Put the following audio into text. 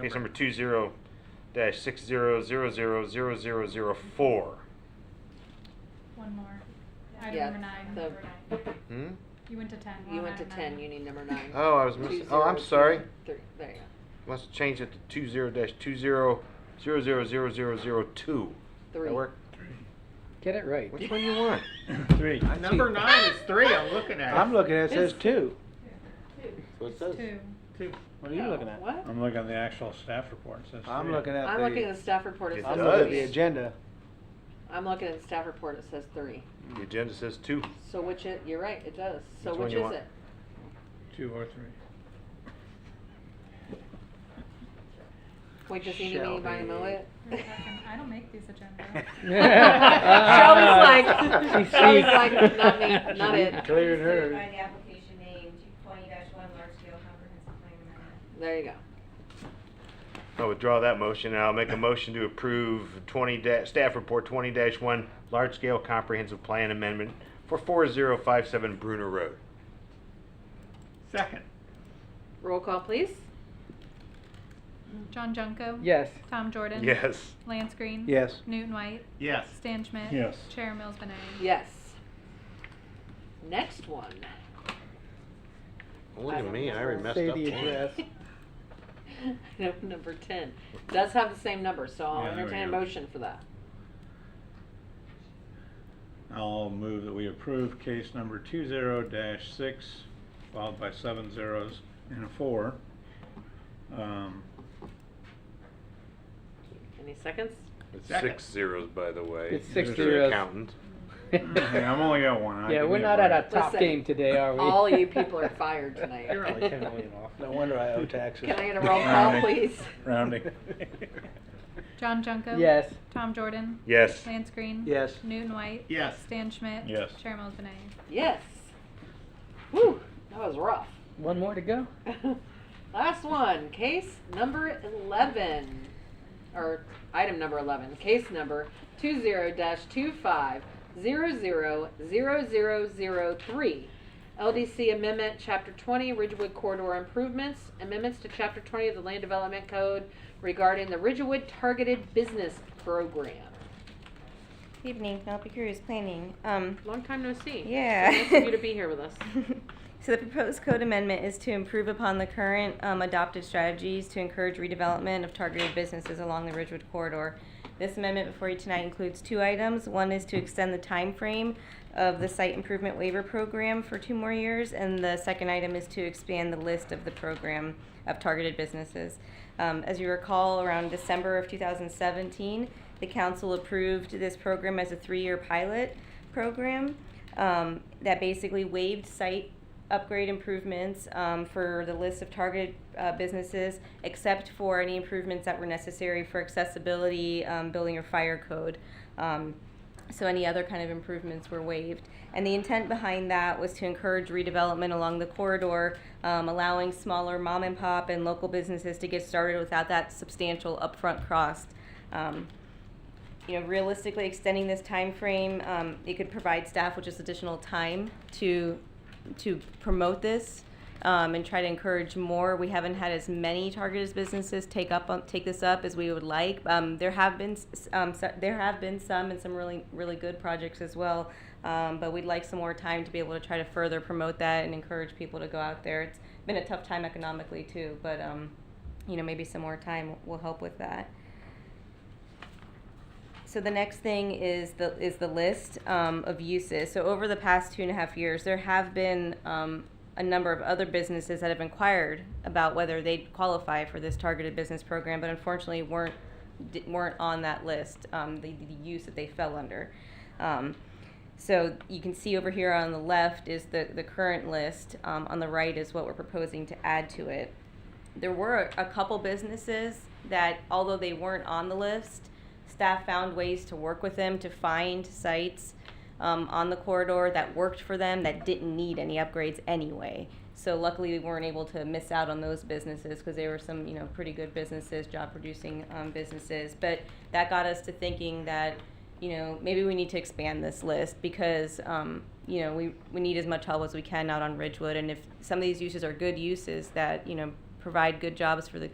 Case number two zero dash six zero zero zero zero zero zero four. One more. Item Yeah, number nine. the- Number nine. Hmm? You went to ten. We're You on went to item ten, nine. you need number nine. Oh, I was missing, oh, I'm sorry. 20, There you go. Must have changed it to two zero dash two zero zero zero zero zero zero two. Three. That work? Get it right. Which one you want? Three. Number nine is three, I'm looking at. I'm looking at it says two. What it says? Two. Two. What are you No, looking at? What? I'm looking at the actual staff report, it says I'm three. looking at I'm looking at the, the staff report, it It says I'm looking at the does. three. agenda. I'm looking at the staff report, it says three. The agenda says two. So which it, you're right, it does. So Which one which you is want? it? Two or three. Wait, does he need Shall me by be. know it? Wait a second, I don't make these agendas. Shelby's like, Shelby's She sees- like, not me, not she it. Cleared Considered By her. the application name, two twenty one large scale comprehensive plan amendment. There you go. I'll withdraw that motion and I'll make a motion to approve twenty da- staff report twenty dash one, large scale comprehensive plan amendment for four zero five seven Bruner Road. Second. Roll call, please. John Junko. Yes. Tom Jordan. Yes. Lance Green. Yes. Newton White. Yes. Stan Schmidt. Yes. Chair Mills Benay. Yes. Next one. Look I at don't me, I know. already messed Say up. the one. address. Item number ten does have the same number, so Yeah, I'll there we entertain a go. motion for that. I'll move that we approve case number two zero dash six, followed by seven zeros and a four. Um, Any seconds? It's Second. six zeros, by the way. It's six Mr. zeros. Accountant. hey, I'm only got one. I Yeah, can we're get not away. at our top Listen, game today, are we? All you people are fired tonight. You're only ten million off. No wonder I owe taxes. Can I get a roll call, please? Rounding. John Junko. Yes. Tom Jordan. Yes. Lance Green. Yes. Newton White. Yes. Stan Schmidt. Yes. Chair Mills Benay. Yes. Whew, that was rough. One more to go? Last one, case number eleven, or item number eleven, case number two zero dash two five zero zero zero zero zero three. LDC Amendment, Chapter twenty, Ridgewood Corridor Improvements, amendments to Chapter twenty of the Land Development Code regarding the Ridgewood Targeted Business Program. Evening, Penelope Curious Planning. Um, Long time no see. Yeah. So Nice of you to be here with us. so the proposed code amendment is to improve upon the current um, adopted strategies to encourage redevelopment of targeted businesses along the Ridgewood corridor. This amendment before you tonight includes two items. One is to extend the time frame of the site improvement waiver program for two more years, and the second item is to expand the list of the program of targeted businesses. Um, as you recall, around December of 2017, the council approved this program as a three-year pilot program um, that basically waived site upgrade improvements um, for the list of targeted uh, businesses, except for any improvements that were necessary for accessibility, um, building or fire code. Um, so any other kind of improvements were waived. And the intent behind that was to encourage redevelopment along the corridor, um, allowing smaller mom and pop and local businesses to get started without that substantial upfront cost. Um, you know, realistically extending this time frame, um, it could provide staff with just additional time to, to promote this, um, and try to encourage more. We haven't had as many targeted businesses take up, on take this up as we would like. Um, there have been, s- s- um, so- there have been some and some really, really good projects as well. Um, but we'd like some more time to be able to try to further promote that and encourage people to go out there. It's been a tough time economically too, but, um, you know, maybe some more time will help with that. So the next thing is the is the list um, of uses. So over the past two and a half years, there have been um, a number of other businesses that have inquired about whether they qualify for this targeted business program, but unfortunately weren't di- weren't on that list. Um, the, the use that they fell under. Um, so you can see over here on the left is the the current list. Um, on the right is what we're proposing to add to it there were a couple businesses that, although they weren't on the list, staff found ways to work with them to find sites um, on the corridor that worked for them that didn't need any upgrades anyway. So luckily, we weren't able to miss out on those businesses because they were some, you know, pretty good businesses, job-producing um, businesses. But that got us to thinking that you know, maybe we need to expand this list because, um, you know, we, we need as much help as we can out on Ridgewood. And if some of these uses are good uses that, you know, provide good jobs for the